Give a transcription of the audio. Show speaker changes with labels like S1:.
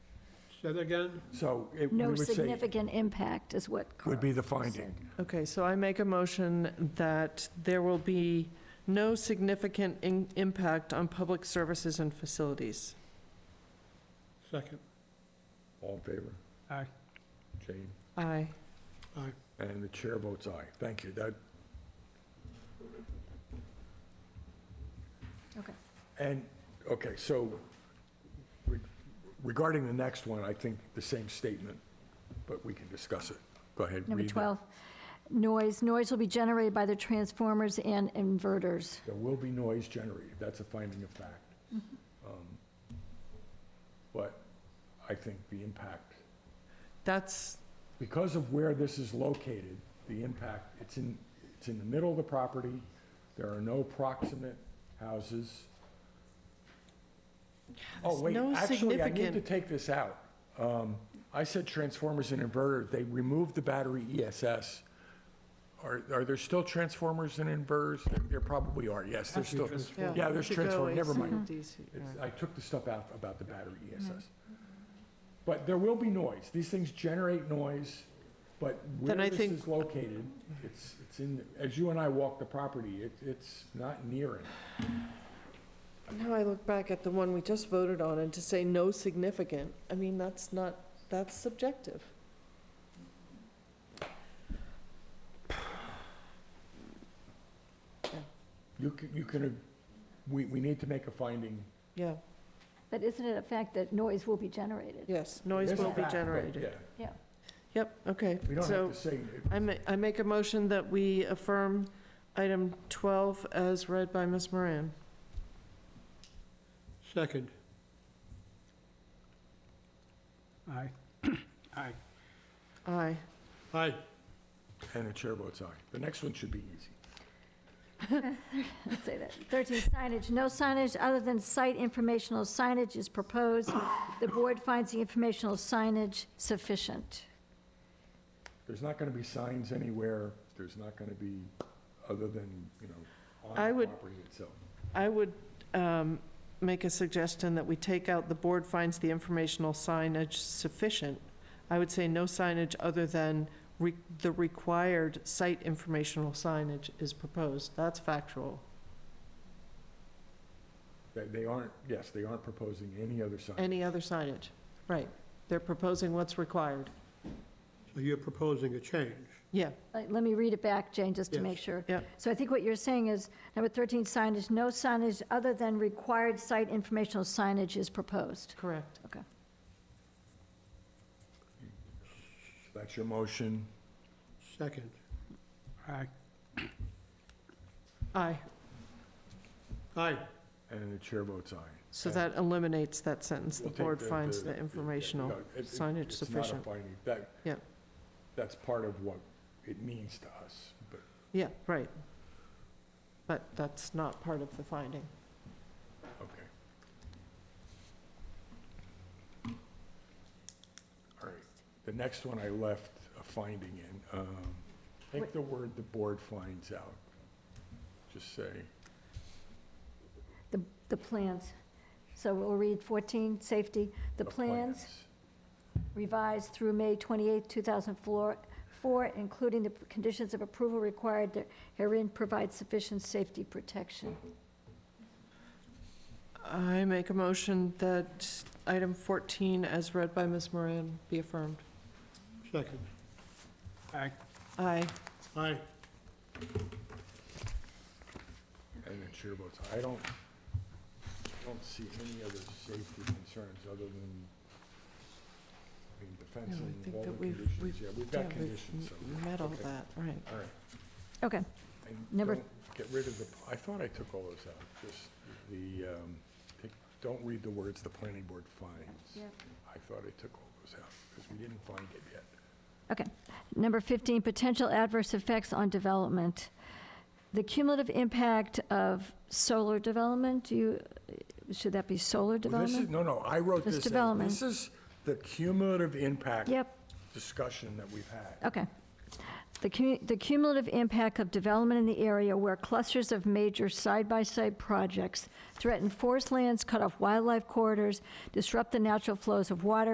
S1: Say that again?
S2: So it we
S3: No
S2: would say
S3: significant impact is what Carl
S2: would be the
S3: said.
S2: finding.
S4: Okay, so I make a motion that there will be no significant in- impact on public services and facilities.
S1: Second.
S2: All in favor?
S1: Aye.
S2: Jane?
S4: Aye.
S2: And the chair votes aye. Thank you. That.
S3: Okay.
S2: And, okay, so re- regarding the next one, I think the same statement, but we can discuss it. Go ahead.
S3: Number
S2: read it.
S3: 12, noise. Noise will be generated by the transformers and inverters.
S2: There will be noise generated. That's a finding of fact.
S3: Mm-hmm.
S2: Um, But I think the impact
S4: That's,
S2: because of where this is located, the impact, it's in, it's in the middle of the property, there are no proximate houses. Oh,
S4: There's
S2: wait,
S4: no
S2: actually, I need to
S4: significant-
S2: take this out. Um, I said transformers and inverters, they removed the battery ESS. Are, are there still transformers and inverters? There- There probably are, yes, there's still. It's-
S4: yeah.
S2: Yeah, there's
S4: should
S2: transform-
S4: go Mm-hmm.
S2: never mind.
S4: AC/DC, yeah.
S2: I took the stuff out about the battery
S4: Mm-hmm.
S2: ESS. But there will be noise. These things generate noise, but where
S4: Then I
S2: this
S4: think-
S2: is located, it's, it's in, as you and I walk the property, it, it's not near it. uh,
S4: Now I look back at the one we just voted on and to say no significant, I mean, that's not, that's subjective.
S2: You can, you can, we, we need to make a finding.
S4: Yeah,
S3: But isn't it a fact that noise will be generated?
S4: yes, noise
S2: It is a
S4: will be
S2: fact, but
S4: generated.
S2: Yeah,
S4: Yep, okay.
S2: we don't
S4: So
S2: have to say, it.
S4: I ma- I make a motion that we affirm item 12 as read by Ms. Moran.
S1: Second. Aye. Aye.
S4: Aye.
S1: Aye.
S2: and the chair votes aye. The next one should be easy.
S3: Let's say that. 13, signage. No signage other than site informational signage is proposed. The board finds the informational signage sufficient.
S2: There's not gonna be signs anywhere, there's not gonna be, other than, you know, on
S4: I
S2: the
S4: would-
S2: property itself.
S4: I would um, make a suggestion that we take out, "The board finds the informational signage sufficient." I would say no signage other than re- the required site informational signage is proposed. That's factual.
S2: They, they aren't, yes, they aren't proposing any other sign.
S4: Any other signage? Right. They're proposing what's required.
S1: So you're proposing a change.
S4: Yeah,
S3: Let Uh, let me read it back, Jane, just to
S1: Yes.
S3: make sure.
S4: Yep.
S3: So I think what you're saying is, number 13, signage, no signage other than required site informational signage is proposed.
S4: correct.
S2: That's your motion.
S1: Second. Aye.
S4: Aye.
S1: Aye.
S2: And the chair votes aye.
S4: So that eliminates that sentence, "The
S2: We'll take
S4: board finds
S2: yeah,
S4: the
S2: yeah,
S4: informational."
S2: no, it- it-
S4: signage
S2: It's not a
S4: sufficient.
S2: finding, that.
S4: Yeah.
S2: That's part of what it means to us, but
S4: Yeah, right. But that's not part of the finding.
S2: Okay. All right, the next one I left a finding in, um, take
S3: What-
S2: the word the board finds out. Just say,
S3: The, the plans. So we'll read 14, safety. The plans revised through May 28, 2004, four, including the conditions of approval required herein provide sufficient safety protection.
S4: I make a motion that item 14, as read by Ms. Moran, be affirmed.
S1: Second. Aye.
S4: Aye.
S1: Aye.
S2: And the chair votes aye. I don't, don't see any other safety concerns other than, I mean, the fencing,
S4: think
S2: all
S4: that
S2: the
S4: we've-
S2: conditions,
S4: we've-
S2: yeah, we've
S4: yeah,
S2: got
S4: we've
S2: conditions, so,
S4: m- Met all
S2: okay.
S4: that, right.
S2: all right.
S3: Okay,
S2: And
S3: Number-
S2: don't Get rid of the, I thought I took all those out, just the, um, take- don't read the words the planning board finds.
S3: Yep.
S2: I thought I took all those out, because we didn't find it yet.
S3: okay. Number 15, potential adverse effects on development. The cumulative impact of solar development, do you, should that be solar
S2: Well, This is,
S3: development?
S2: no, no, I wrote
S3: It's
S2: this. as-
S3: development.
S2: This is the cumulative impact
S3: Yep,
S2: discussion that we've had.
S3: okay. The cu- the cumulative impact of development in the area where clusters of major side-by-side projects threaten forest lands, cut off wildlife corridors, disrupt the natural flows of water,